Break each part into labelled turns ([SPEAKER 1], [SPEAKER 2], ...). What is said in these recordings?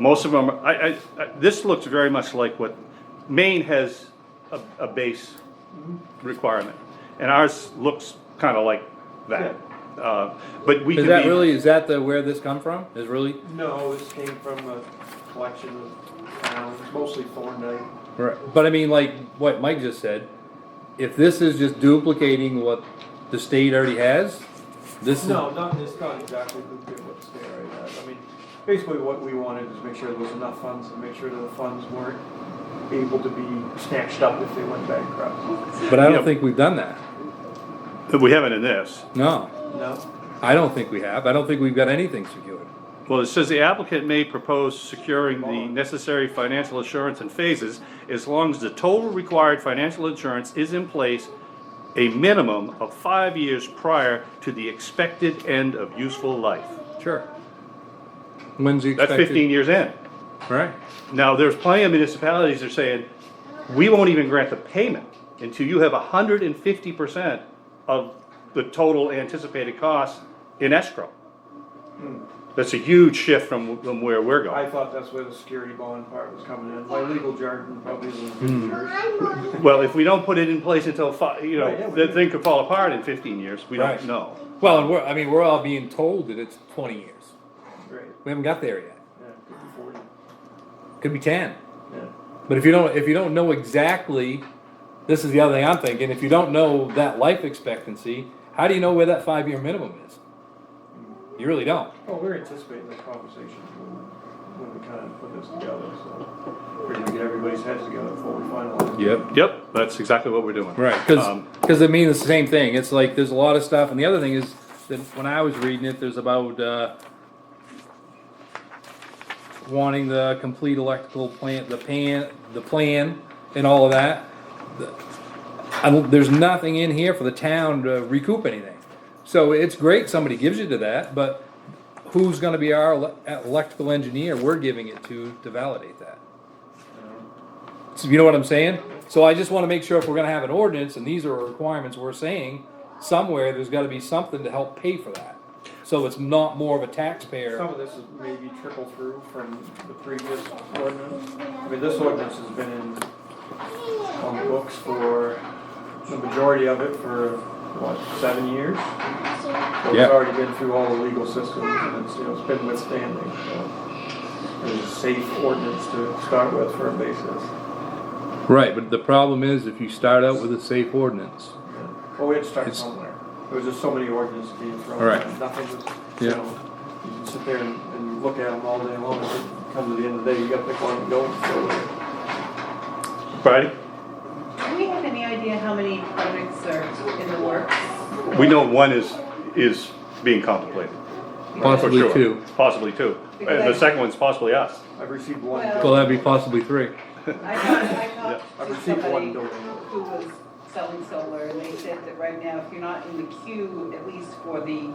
[SPEAKER 1] Most of them, I, I, I- this looks very much like what, Maine has a, a base requirement. And ours looks kind of like that. Uh, But we can be.
[SPEAKER 2] Is that really, is that the, where this come from? Is really?
[SPEAKER 3] No, this came from a collection of towns, mostly Thorndike.
[SPEAKER 2] But I mean, like what Mike just said, if this is just duplicating what the state already has, this is.
[SPEAKER 3] No, not, it's not exactly the, what the state already has. I mean, basically what we wanted is make sure there was enough funds and make sure that the funds weren't able to be snatched up if they went bankrupt.
[SPEAKER 2] But I
[SPEAKER 1] Yeah.
[SPEAKER 2] don't think we've done that.
[SPEAKER 1] We haven't in this.
[SPEAKER 2] No,
[SPEAKER 3] No?
[SPEAKER 2] I don't think we have. I don't think we've got anything secured.
[SPEAKER 1] Well, it says the applicant may propose securing the necessary financial assurance in phases as long as the total required financial insurance is in place a minimum of five years prior to the expected end of useful life.
[SPEAKER 2] Sure. When's the
[SPEAKER 1] That's
[SPEAKER 2] expected?
[SPEAKER 1] fifteen years in.
[SPEAKER 2] Right.
[SPEAKER 1] Now, there's plenty of municipalities that are saying, we won't even grant the payment until you have hundred and fifty percent of the total anticipated cost in escrow. That's a huge shift from, from where we're going.
[SPEAKER 3] I thought that's where the security bond part was coming in. My legal jargon probably isn't good jargon.
[SPEAKER 1] Well, if we don't put it in place until five, you
[SPEAKER 3] Right, yeah,
[SPEAKER 1] know,
[SPEAKER 3] we
[SPEAKER 1] the
[SPEAKER 3] do.
[SPEAKER 1] thing could fall apart in fifteen years, we don't
[SPEAKER 2] Right.
[SPEAKER 1] know.
[SPEAKER 2] Well, and we're, I mean, we're all being told that it's twenty years.
[SPEAKER 3] Great,
[SPEAKER 2] We haven't got there yet.
[SPEAKER 3] yeah, could be forty,
[SPEAKER 2] Could be ten.
[SPEAKER 3] yeah.
[SPEAKER 2] But if you don't, if you don't know exactly, this is the other thing I'm thinking, if you don't know that life expectancy, how do you know where that five-year minimum is? You really don't.
[SPEAKER 3] Well, we're anticipating this conversation when, when we kind of put this together, so we're gonna get everybody's heads together before we finalize.
[SPEAKER 2] Yep.
[SPEAKER 1] Yep, that's exactly what we're doing.
[SPEAKER 2] Right, cause,
[SPEAKER 1] Um,
[SPEAKER 2] 'cause it means the same thing, it's like, there's a lot of stuff, and the other thing is, that when I was reading it, there's about, uh, wanting the complete electrical plant, the pan, the plan, and all of that. I don't- there's nothing in here for the town to recoup anything. So it's great somebody gives you to that, but who's gonna be our ele- electrical engineer we're giving it to to validate that? So you know what I'm saying? So I just wanna make sure if we're gonna have an ordinance, and these are requirements we're saying, somewhere, there's gotta be something to help pay for that. So it's not more of a
[SPEAKER 3] Some
[SPEAKER 2] taxpayer.
[SPEAKER 3] of this is maybe trickle through from the previous ordinance. I mean, this ordinance has been in, on the books for, the majority of it for, what, seven years? So
[SPEAKER 2] Yeah.
[SPEAKER 3] It's already been through all the legal systems and it's, you know, it's been withstanding, so. It's a safe ordinance to start with for a basis.
[SPEAKER 2] Right, but the problem is if you start out with a safe ordinance.
[SPEAKER 3] Well, we had to start
[SPEAKER 2] It's-
[SPEAKER 3] somewhere. There was just so many ordinances being thrown.
[SPEAKER 2] All right.
[SPEAKER 3] out. Nothing was, you
[SPEAKER 2] Yeah.
[SPEAKER 3] know, you can sit there and, and look at them all day long, and come to the end of the day, you gotta pick one and go and go with it.
[SPEAKER 1] Friday,
[SPEAKER 4] Do we have any idea how many projects are in the works?
[SPEAKER 1] we know one is, is being contemplated. for
[SPEAKER 2] Possibly
[SPEAKER 1] sure.
[SPEAKER 2] two.
[SPEAKER 1] Possibly two. And the
[SPEAKER 4] Because-
[SPEAKER 1] second one's possibly us.
[SPEAKER 3] I've received one,
[SPEAKER 4] Well-
[SPEAKER 2] Well, that'd be possibly three.
[SPEAKER 4] I talked, I talked
[SPEAKER 3] I've
[SPEAKER 4] to
[SPEAKER 3] received one
[SPEAKER 4] somebody
[SPEAKER 3] door.
[SPEAKER 4] who was selling solar, and they said that right now, if you're not in the queue, at least for the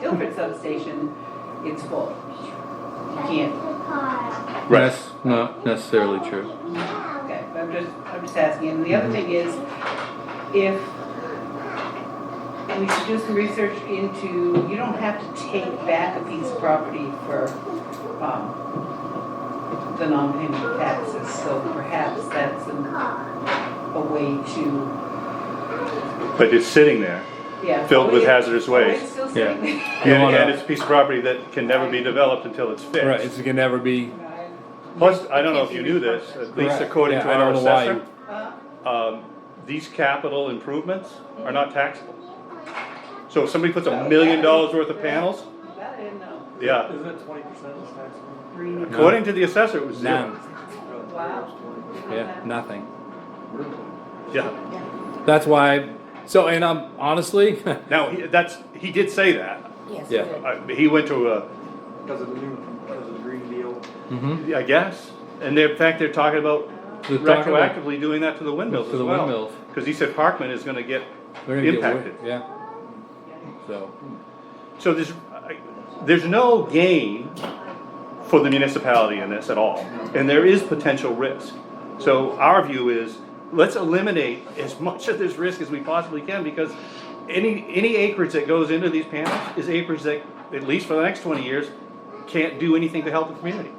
[SPEAKER 4] Guilford substation, it's full. You can't,
[SPEAKER 2] That's not necessarily true.
[SPEAKER 4] okay, I'm just, I'm just asking. And the other thing is, if we should do some research into, you don't have to take back a piece of property for, um, the non-payment taxes, so perhaps that's a, a way to
[SPEAKER 1] But it's sitting there,
[SPEAKER 4] Yeah.
[SPEAKER 1] filled with
[SPEAKER 4] Oh, yeah.
[SPEAKER 1] hazardous waste.
[SPEAKER 4] Oh, it's still sitting there.
[SPEAKER 1] and,
[SPEAKER 2] You wanna-
[SPEAKER 1] and it's a piece of property that can never be developed until it's
[SPEAKER 2] Right,
[SPEAKER 1] fixed.
[SPEAKER 2] it's gonna never be,
[SPEAKER 1] Plus, I don't know if you knew this, at least
[SPEAKER 2] Correct.
[SPEAKER 1] according
[SPEAKER 2] Yeah,
[SPEAKER 1] to
[SPEAKER 2] I
[SPEAKER 1] our
[SPEAKER 2] don't know why
[SPEAKER 1] assessor,
[SPEAKER 4] Uh,
[SPEAKER 1] um, these capital improvements are not taxable. So if somebody puts a million dollars worth of panels,
[SPEAKER 4] That I didn't know.
[SPEAKER 1] yeah,
[SPEAKER 3] isn't it twenty percent of the tax?
[SPEAKER 4] Green.
[SPEAKER 1] According to the assessor, it was zero.
[SPEAKER 2] none,
[SPEAKER 4] Wow.
[SPEAKER 2] yeah, nothing.
[SPEAKER 1] Yeah.
[SPEAKER 2] That's why, so, and I'm honestly,
[SPEAKER 1] Now, he- that's, he did say that.
[SPEAKER 5] Yes.
[SPEAKER 2] Yeah.
[SPEAKER 5] good.
[SPEAKER 1] I- He went to a,
[SPEAKER 3] Because of the new, because of the green deal.
[SPEAKER 2] mhm,
[SPEAKER 1] I guess, and they're, in fact, they're talking about
[SPEAKER 2] They're talking about-
[SPEAKER 1] retroactively doing that to the windmills
[SPEAKER 2] To
[SPEAKER 1] as
[SPEAKER 2] the
[SPEAKER 1] well.
[SPEAKER 2] windmills.
[SPEAKER 1] Cause he said Parkman is gonna get
[SPEAKER 2] we're gonna get wor-
[SPEAKER 1] impacted.
[SPEAKER 2] Yeah, so,
[SPEAKER 1] So there's, I- there's no gain for the municipality in this at all, and there is potential risk. So our view is, let's eliminate as much of this risk as we possibly can, because any, any acreage that goes into these panels is acreage that, at least for the next twenty years, can't do anything to help the community.